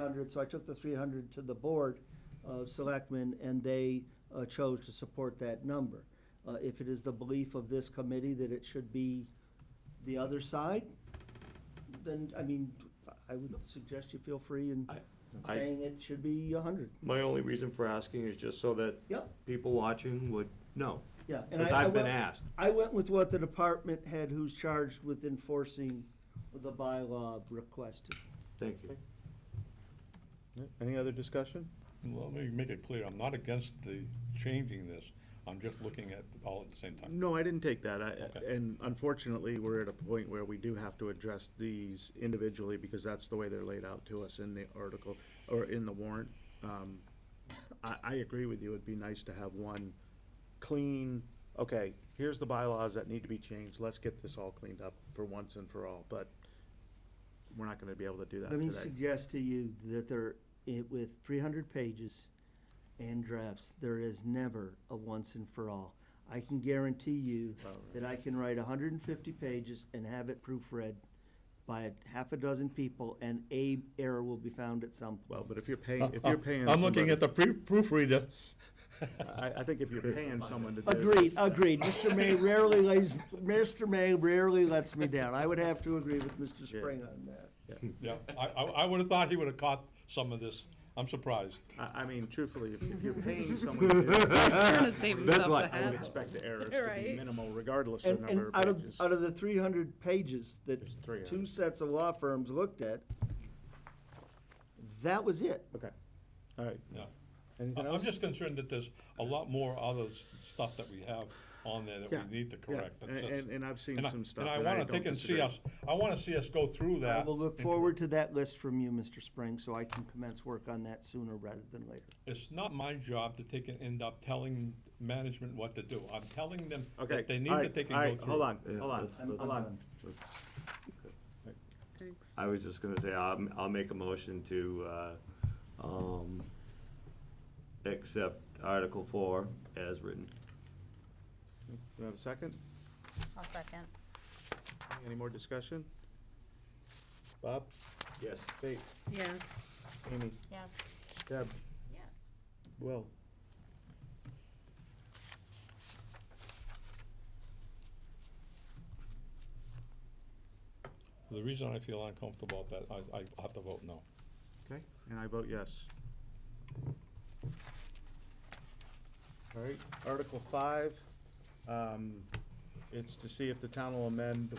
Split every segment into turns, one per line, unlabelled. hundred, so I took the three hundred to the Board of Selectmen, and they uh, chose to support that number. Uh, If it is the belief of this committee that it should be the other side, then, I mean, I would suggest you feel free in
I- I-
saying it should be a hundred.
My only reason for asking is just so that
Yep,
people watching would know.
yeah. and
Because
I- I
I've been
went-
asked.
I went with what the department head who's charged with enforcing the bylaw requested.
Thank you.
Any other discussion?
Let me make it clear, I'm not against the changing this, I'm just looking at all at the same time.
No, I didn't take that. I,
Okay.
and unfortunately, we're at a point where we do have to address these individually because that's the way they're laid out to us in the article or in the warrant. Um, I, I agree with you. It'd be nice to have one clean, okay, here's the bylaws that need to be changed. Let's get this all cleaned up for once and for all, but we're not gonna be able to do that
Let me
today.
suggest to you that there, i- with three hundred pages and drafts, there is never a once and for all. I can guarantee you that I can write hundred and fifty pages and have it proofread by a half a dozen people, and a error will be found at some point.
Well, but if you're paying, if you're
uh,
paying
Oh, I'm looking
somebody-
at the pre- proofreader.
I, I think if you're paying someone to do this.
Agreed, agreed. Mr. May rarely lays, Mr. May rarely lets me down. I would have to agree with Mr. Spring on that.
Yeah, I, I, I would've thought he would've caught some of this, I'm surprised.
I, I mean, truthfully, if if you're paying someone to do this,
trying to save
That's
himself
why
the
I would
hassle.
expect the errors to be
Right.
minimal regardless of
And, and
number of
out of,
pages.
out of the three hundred pages that
There's 300.
two sets of law firms looked at, that was it.
Okay, all right.
Yeah.
Anything
I-
else?
I'm just concerned that there's a lot more other s- stuff that we have on there that
Yeah,
we need to correct.
yeah,
That's
and-
it.
and- and I've seen
I-
some stuff
And I
that I
wanna
don't
think and see
disagree.
us, I wanna see us go through
I
that.
will look
and-
forward to that list from you, Mr. Spring, so I can commence work on that sooner rather than later.
It's not my job to take and end up telling management what to do. I'm telling them
Okay,
that they need
all
to
right,
take and
all
go
right,
through.
Hold on,
Yeah,
hold on,
that's-
hold
that's-
on.
that's-
Thanks.
I was just gonna say, I'll, I'll make a motion to, uh, um, accept Article Four as written.
You have a second?
I'll second.
Any more discussion? Bob?
Yes.
Kate?
Yes.
Amy?
Yes.
Deb?
Yes.
Will?
The reason I feel uncomfortable about that, I, I have to vote no.
Okay, and I vote yes. All right, Article five, um, it's to see if the town will amend,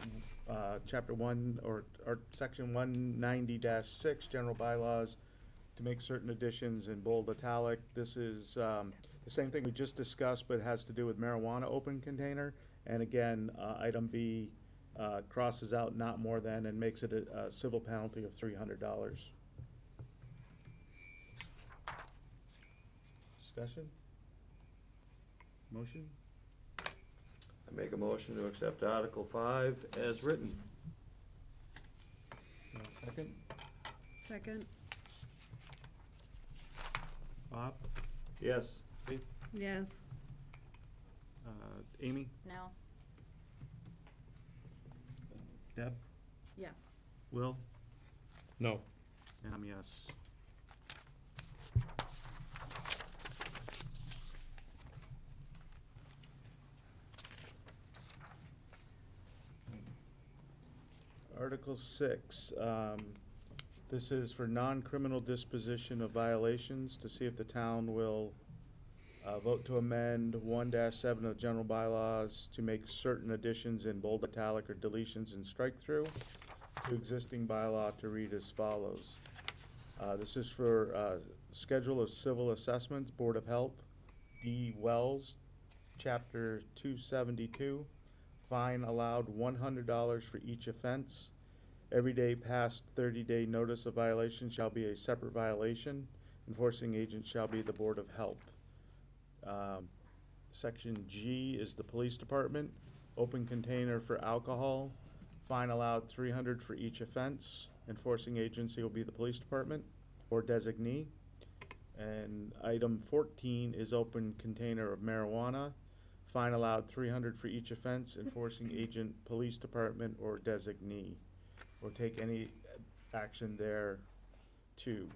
uh, chapter one or, or section one ninety six, general bylaws, to make certain additions in bold italic. This is, um, the same thing we just discussed, but it has to do with marijuana open container. And again, uh, item B, uh, crosses out not more than and makes it a, a civil penalty of three hundred dollars. Discussion? Motion?
I make a motion to accept Article Five as written.
Uh, Second.
Second.
Bob?
Yes.
Yes.
Uh, Amy?
No.
Deb?
Yes.
Will?
No.
And I'm yes. Article six, um, this is for non-criminal disposition of violations to see if the town will, uh, vote to amend one seven of general bylaws to make certain additions in bold italic or deletions in strike-through to existing bylaw to read as follows. Uh, This is for uh, Schedule of Civil Assessments, Board of Health, D. Wells, Chapter 272, fine allowed $100 for each offense. Every day past 30-day notice of violation shall be a separate violation. Enforcing agent shall be the Board of Health. Um, Section G is the Police Department, open container for alcohol, Fine allowed three hundred for each offense. Enforcing agency will be the police department or designee. And item fourteen is open container of marijuana. Fine allowed three hundred for each offense. Enforcing agent, police department or designee. Or take any action there too.